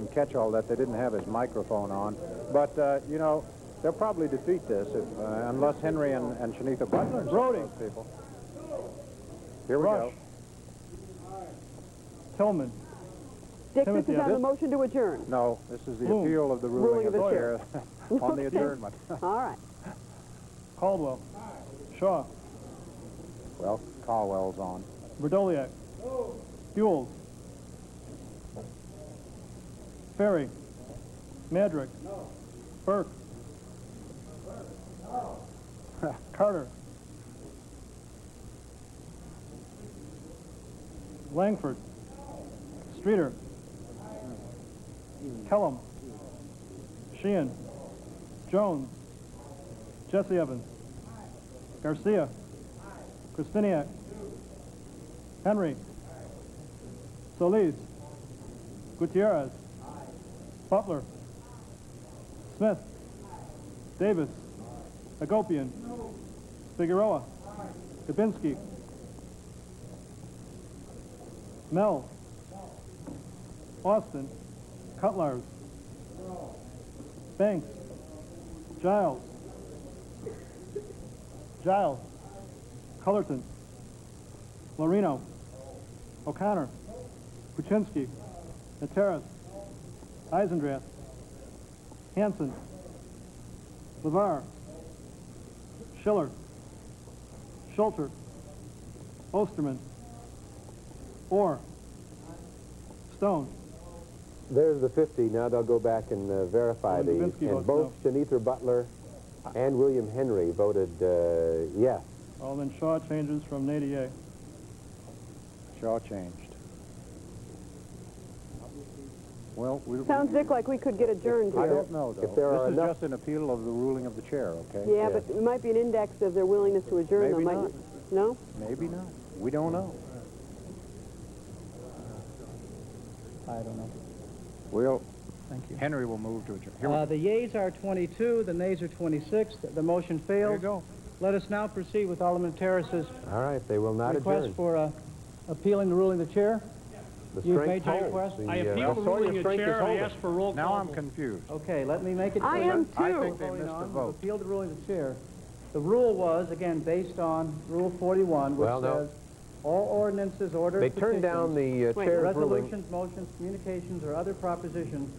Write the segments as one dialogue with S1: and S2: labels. S1: didn't catch all that. They didn't have his microphone on. But, uh, you know, they'll probably defeat this if, uh, unless Henry and, and Shanitha Butler and some of
S2: Brody.
S1: those people. Here we
S2: Rush.
S1: go.
S2: Tillman.
S3: Dick, this
S2: Timothy,
S3: is on
S2: this-
S3: the motion to adjourn.
S1: No, this is the
S2: Bloom.
S1: appeal of the ruling,
S3: Ruling
S1: of
S3: of
S1: the
S3: the
S1: chair on the
S3: Okay.
S1: adjournment.
S3: All right.
S2: Caldwell. Shaw.
S1: well, Caldwell's on.
S2: Verdoliak. Buell. Ferry. Madrick. Burke. Carter. Langford. Streeter. Kellum. Sheehan. Jones. Jesse Evans. Garcia. Kristiniak. Henry. Solis. Gutierrez. Butler. Smith. Davis. Agopian. Figueroa. Kabinski. Mel. Austin. Cutlars. Banks. Giles. Giles. Cullerton. Lorino. O'Connor. Kuczynski. Nateras. Eisendrath. Hanson. LeVar. Schiller. Schulter. Osterman. Orr. Stone.
S4: There's the 50. Now they'll go back and uh, verify
S2: And
S4: these.
S2: Dubinsky
S4: And
S2: votes
S4: both Shanita Butler and William Henry voted uh, yes.
S2: Alderman Shaw changes from nay to yea.
S1: Shaw changed. Well, we,
S3: Sounds, Dick, like we could get adjourned
S1: I
S3: here.
S1: don't know, though.
S4: If there are
S1: this
S4: enough-
S1: is just an appeal of the ruling of the chair, okay?
S3: Yeah, but it might be an index of their willingness to adjourn. though,
S1: Maybe
S3: mightn't it? No?
S1: Maybe not. We don't know.
S5: I don't know.
S1: We'll,
S5: Thank you.
S1: Henry will move to adjourn. Here we
S5: Uh, the yeas are 22, the nays are 26. The, the motion fails.
S1: There you go.
S5: Let us now proceed with Alderman Terrace's
S4: All right, they will not
S5: request
S4: adjourn.
S5: for uh, appealing the ruling of the chair.
S4: the
S5: you've
S4: strength
S5: made your
S4: holds.
S5: request?
S4: The,
S6: I
S4: uh,
S6: appeal the
S4: Australian
S6: ruling of the
S4: strength is
S6: chair. I
S4: holding.
S6: ask for roll call.
S1: Now I'm
S6: vote.
S1: confused.
S5: Okay, let me make it
S3: I
S5: clear.
S3: am
S1: I
S3: too.
S1: think they
S5: Voting
S1: missed a
S5: on,
S1: vote.
S5: Appeal the ruling of the chair. The rule was, again, based on Rule 41, which
S4: Well, no.
S5: says all ordinances, orders,
S4: They turned down
S5: petitions,
S4: the uh,
S3: Wait,
S4: chair's ruling.
S5: Resolutions, motions, communications, or other propositions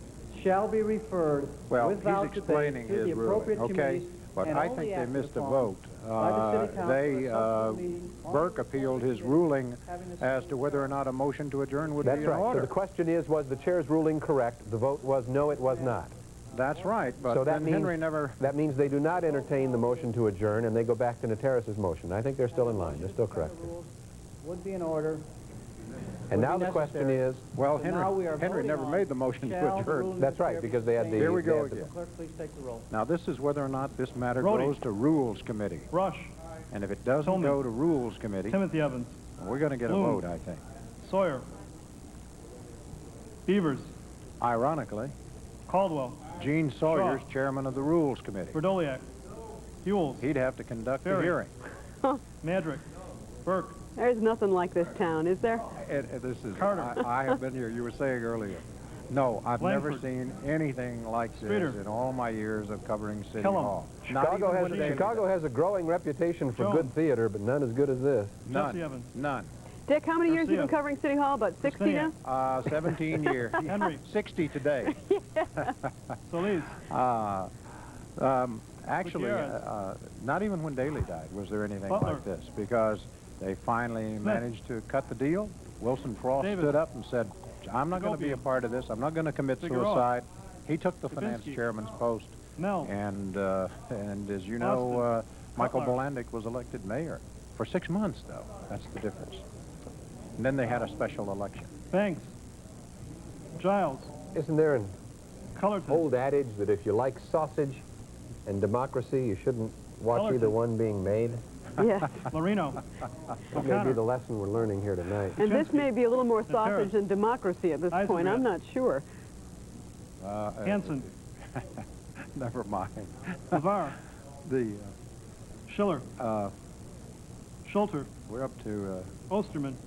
S5: shall be referred
S1: Well,
S5: with
S1: he's
S5: voucher
S1: explaining
S5: to the
S1: his ruling,
S5: appropriate
S1: okay?
S5: committees
S1: But
S5: and
S1: I
S5: all
S1: think
S5: the
S1: they
S5: acts
S1: missed a
S5: upon
S1: vote.
S5: by the city
S1: Uh,
S5: council
S1: They,
S5: at a
S1: uh,
S5: subsequent meeting on
S1: Burke
S5: the
S1: appealed his
S5: subject
S1: ruling
S5: having the
S1: as
S5: same
S1: to whether or not a motion to adjourn would be
S4: That's
S1: in
S4: right. So the
S1: order.
S4: question is, was the chair's ruling correct? The vote was no, it was not.
S1: That's right,
S4: so
S1: but
S4: that
S1: then
S4: means
S1: Henry never,
S4: that means they do not entertain the motion to adjourn, and they go back to Nateras' motion. I think they're still in line. They're still correct.
S5: rules Would be in order.
S4: And
S5: Would
S4: now
S5: be
S4: the question
S5: necessary.
S4: is,
S1: well,
S5: So now we are
S1: Henry, Henry
S5: voting
S1: never
S5: on
S1: made the motion to
S5: shall the
S1: adjourn.
S5: ruling
S4: That's
S5: of the
S4: right,
S5: chair be
S4: because they had the-
S5: sustained?
S1: Here we
S4: they
S1: go
S4: had the-
S1: again.
S5: Clerk, please take the roll.
S1: Now, this is whether or not this matter
S2: Brody.
S1: goes to Rules Committee.
S2: Rush.
S1: And if it doesn't
S2: Tillman.
S1: go to Rules Committee,
S2: Timothy Evans.
S1: we're going to get a
S2: Bloom.
S1: vote, I think.
S2: Sawyer. Beavers.
S1: Ironically,
S2: Caldwell.
S1: Gene Sawyer's chairman of the Rules Committee.
S2: Verdoliak. Buell.
S1: He'd have to conduct the
S2: Ferry.
S1: hearing.
S2: Madrick. Burke.
S3: There's nothing like this town, is there?
S1: Ed, Ed, this is,
S2: Carter.
S1: I, I have been here, you were saying earlier. No, I've never
S2: Langford.
S1: seen anything like this
S2: Streeter.
S1: in all my years of covering City
S2: Kellum.
S1: Hall. Not
S4: Chicago
S1: even
S4: has,
S1: when they-
S4: Chicago has a growing reputation for
S2: Jones.
S4: good theater, but none as good as this.
S2: Jesse
S1: None,
S2: Evans.
S1: none.
S3: Dick, how many years you been
S2: Garcia.
S3: covering City Hall? About 60 now?
S2: Garcia.
S1: Uh, 17 years.
S2: Henry.
S1: 60 today.
S2: Solis.
S1: Actually, uh,
S2: Gutierrez.
S1: uh, not even when Daley died was there anything
S2: Butler.
S1: like this because they finally managed to cut the deal. Wilson Frost
S2: Davis.
S1: stood up and said, I'm not going to be a
S2: Gopian.
S1: part of this. I'm not going to commit
S2: Figueroa.
S1: suicide. He took the finance
S2: Kubinski.
S1: chairman's post.
S2: Mel.
S1: And, uh, and as you know, uh,
S2: Austin.
S1: Michael
S2: Cutler.
S1: Bolandic was elected mayor for six months, though. That's the difference. And then they had a special election.
S2: Banks. Giles.
S4: Isn't there an
S2: Cullerton.
S1: Hmm.
S4: old adage that if you like sausage and democracy, you shouldn't watch
S2: Colorful.
S4: either one being made?
S3: Yes.
S2: Lorino.
S4: That may be the lesson we're learning here tonight.
S3: And this
S2: Kuczynski.
S3: may be a little more
S2: Nateras.
S3: sausage than democracy at this point.
S2: Eisendrath.
S3: I'm not sure.
S1: Uh, uh,
S2: Hanson.
S1: Never mind.
S2: LeVar.
S1: The,
S2: Schiller.
S1: uh, uh,
S2: Schulter.
S1: we're up to uh,
S2: Osterman.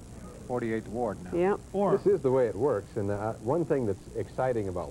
S1: 48th Ward now.
S3: Yeah.
S2: Orr.
S4: This is the way it works, and uh, one thing that's exciting about